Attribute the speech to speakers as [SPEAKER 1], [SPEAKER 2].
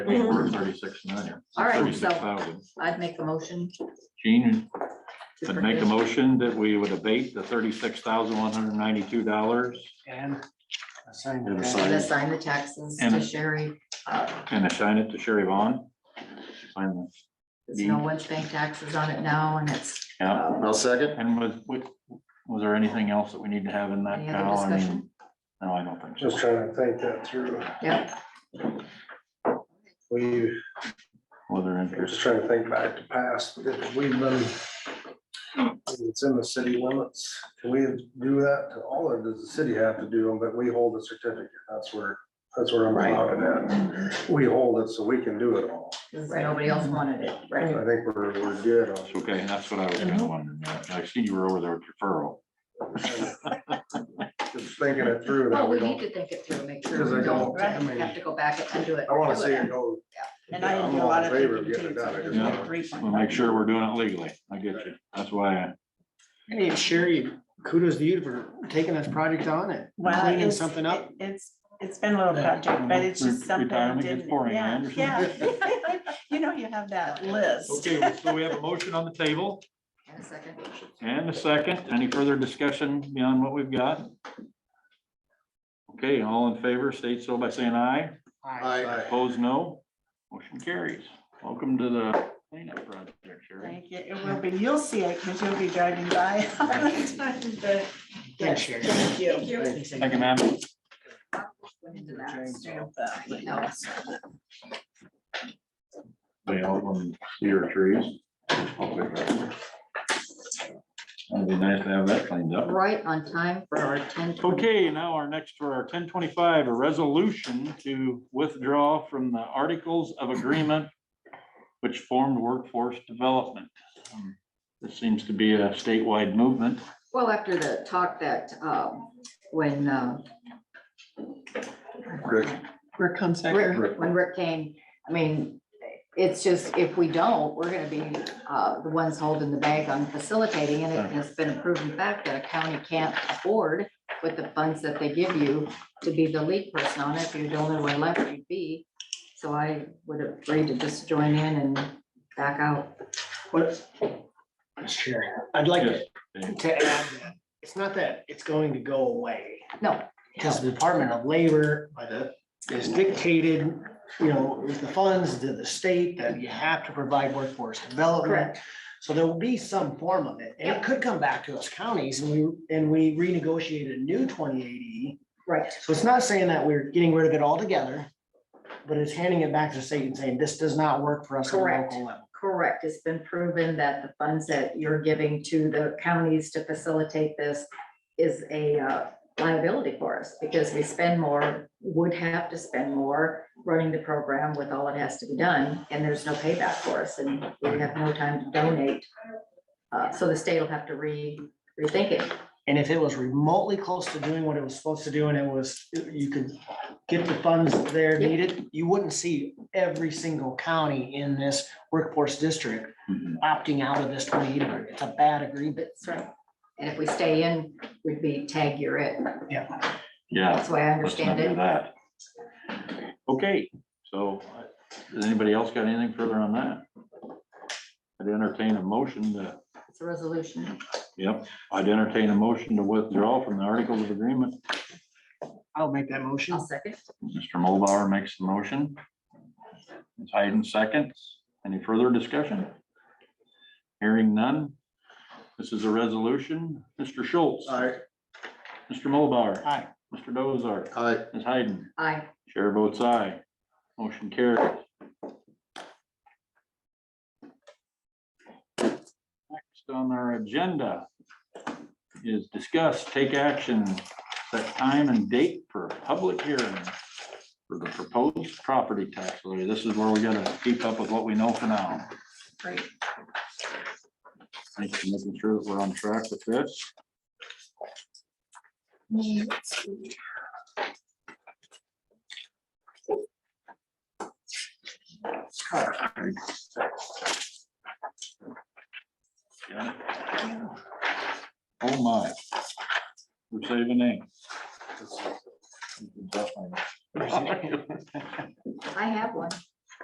[SPEAKER 1] Thirty-six million.
[SPEAKER 2] All right, so-
[SPEAKER 1] 36,000.
[SPEAKER 2] I'd make a motion.
[SPEAKER 1] Gene,
[SPEAKER 2] to
[SPEAKER 1] would make a
[SPEAKER 2] forgive.
[SPEAKER 1] motion that we would abate the thirty-six thousand one hundred ninety-two dollars
[SPEAKER 3] And. assign
[SPEAKER 4] And
[SPEAKER 3] the-
[SPEAKER 4] assign.
[SPEAKER 2] And assign the taxes to
[SPEAKER 1] And-
[SPEAKER 2] Sherry. Uh,
[SPEAKER 1] and assign it to Sherry Vaughn. Sign the-
[SPEAKER 2] There's no one's paying taxes on it now and it's.
[SPEAKER 1] Yeah,
[SPEAKER 2] uh,
[SPEAKER 4] I'll second.
[SPEAKER 1] and was, was was there anything else that we need to have in that?
[SPEAKER 2] Any other
[SPEAKER 1] Cal? I mean,
[SPEAKER 2] discussion?
[SPEAKER 1] No, I don't think so.
[SPEAKER 5] Just trying to think that through.
[SPEAKER 2] Yeah,
[SPEAKER 5] We,
[SPEAKER 1] Whether
[SPEAKER 5] I'm just
[SPEAKER 1] interest,
[SPEAKER 5] trying to think back to past, if we've been. if It's in the city limits. Can we do that to all or does the city have to do them? But we hold the certificate. That's where, that's where I'm
[SPEAKER 2] Right.
[SPEAKER 5] at at. We hold it so we can do it all.
[SPEAKER 2] because nobody else wanted it,
[SPEAKER 5] I
[SPEAKER 2] right?
[SPEAKER 5] think we're, we're good on.
[SPEAKER 1] It's okay, that's what I was
[SPEAKER 2] Mm-hmm.
[SPEAKER 1] kind of wondering. yeah. I see you were over there with referral.
[SPEAKER 5] Just thinking it through. that
[SPEAKER 2] Well, we
[SPEAKER 5] don't-
[SPEAKER 2] need to think it through, and make sure
[SPEAKER 5] Because I
[SPEAKER 2] we don't
[SPEAKER 5] don't, I mean-
[SPEAKER 2] have to go back and do it.
[SPEAKER 5] I want to
[SPEAKER 2] do
[SPEAKER 5] see it go.
[SPEAKER 6] And I
[SPEAKER 5] Yeah,
[SPEAKER 6] didn't
[SPEAKER 5] I'm
[SPEAKER 6] do a
[SPEAKER 5] all
[SPEAKER 6] lot
[SPEAKER 5] in
[SPEAKER 6] of
[SPEAKER 5] favor of
[SPEAKER 6] thinking
[SPEAKER 5] getting
[SPEAKER 6] too,
[SPEAKER 5] it done. I
[SPEAKER 6] so
[SPEAKER 5] just
[SPEAKER 6] this is a
[SPEAKER 5] want-
[SPEAKER 6] great
[SPEAKER 1] We'll
[SPEAKER 6] one.
[SPEAKER 1] make sure we're doing it legally. I get you. That's why I
[SPEAKER 3] Hey, Sherry, kudos to you for taking this project on it,
[SPEAKER 6] Well,
[SPEAKER 3] cleaning
[SPEAKER 6] it's-
[SPEAKER 3] something up.
[SPEAKER 6] it- It's, it's been a little project, but it's just
[SPEAKER 1] Re-
[SPEAKER 6] something I
[SPEAKER 1] retirement gets
[SPEAKER 6] didn't,
[SPEAKER 1] boring, I
[SPEAKER 6] yeah,
[SPEAKER 1] understand.
[SPEAKER 6] yeah. You know, you have that list.
[SPEAKER 1] Okay, well, so we have a motion on the table
[SPEAKER 2] In a second.
[SPEAKER 1] and a second. Any further discussion beyond what we've got? Okay, all in favor, state so by saying aye.
[SPEAKER 5] Aye.
[SPEAKER 1] Opposed, no. Motion carries. Welcome to the cleanup project, Sherry.
[SPEAKER 6] Thank you. It will be, you'll see it because you'll be driving by. all the time, but-
[SPEAKER 3] Thanks,
[SPEAKER 6] Yes,
[SPEAKER 3] Sherry.
[SPEAKER 6] Thank you.
[SPEAKER 1] Thank you, ma'am.
[SPEAKER 2] Went into that.
[SPEAKER 6] Stamp that.
[SPEAKER 2] No.
[SPEAKER 1] They all on cedar trees. That'd be nice to have that cleaned up.
[SPEAKER 2] Right on time for our ten.
[SPEAKER 1] Okay, now our next for our ten twenty-five, a resolution to withdraw from the Articles of Agreement which formed workforce development. Um, This seems to be a statewide movement.
[SPEAKER 2] Well, after the talk that, um, when, um,
[SPEAKER 6] We're
[SPEAKER 2] Rick- when Rick came, I mean, it's just, if we don't, we're gonna be uh, the ones holding the bag on facilitating, and it has been a proven fact that a county can't afford with the funds that they give you to be the lead person on it, if you're the only one left, you'd be. So I would agree to just join in and back out.
[SPEAKER 3] What? Miss Sherry, I'd like to
[SPEAKER 1] Yes.
[SPEAKER 3] to add that, it's not that it's going to go away.
[SPEAKER 2] No.
[SPEAKER 3] Because the Department of Labor, by the, is dictated, you know, is the funds to the state that you have to provide workforce development. So there will be some form of it, and it could come back to us counties, and we, and we renegotiate a new twenty eighty. E
[SPEAKER 2] Right.
[SPEAKER 3] So it's not saying that we're getting rid of it altogether, but it's handing it back to the state and saying, this does not work for us at the
[SPEAKER 2] Correct.
[SPEAKER 3] local level.
[SPEAKER 2] Correct, it's been proven that the funds that you're giving to the counties to facilitate this is a uh, liability for us, because we spend more, would have to spend more running the program with all it has to be done, and there's no payback for us, and we have no time to donate. Uh, So the state will have to re, rethink it.
[SPEAKER 3] And if it was remotely close to doing what it was supposed to do and it was, you could get the funds there
[SPEAKER 2] Yep.
[SPEAKER 3] needed, you wouldn't see every single county in this workforce district
[SPEAKER 1] Mhm.
[SPEAKER 3] opting out of this twenty eighty. It's a bad agreement.
[SPEAKER 2] That's right. And if we stay in, we'd be tag you're it.
[SPEAKER 1] Yeah.
[SPEAKER 2] That's the way I
[SPEAKER 1] let's not
[SPEAKER 2] understand
[SPEAKER 1] do
[SPEAKER 2] it.
[SPEAKER 1] That. Okay, so uh, does anybody else got anything further on that? I'd entertain a motion to,
[SPEAKER 2] It's a resolution.
[SPEAKER 1] yep, I'd entertain a motion to withdraw from the Articles of Agreement.
[SPEAKER 3] I'll make that motion.
[SPEAKER 2] I'll second.
[SPEAKER 1] Mr. Mulbauer makes the motion. Ms. Hayden seconds. Any further discussion? Hearing none. This is a resolution. Mr. Schultz.
[SPEAKER 5] Aye.
[SPEAKER 1] Mr. Mulbauer.
[SPEAKER 3] Aye.
[SPEAKER 1] Mr. Dozar.
[SPEAKER 5] Aye.
[SPEAKER 1] Ms. Hayden.
[SPEAKER 2] Aye.
[SPEAKER 1] Chair votes aye. Motion carries. Next on our agenda is discuss, take action, set time and date for a public hearing for the proposed property tax levy. This is where we gotta keep up with what we know for now.
[SPEAKER 6] Great.
[SPEAKER 1] Thanks for making sure that we're on track with this. Got it? Oh my. We're saving names.
[SPEAKER 2] I have one.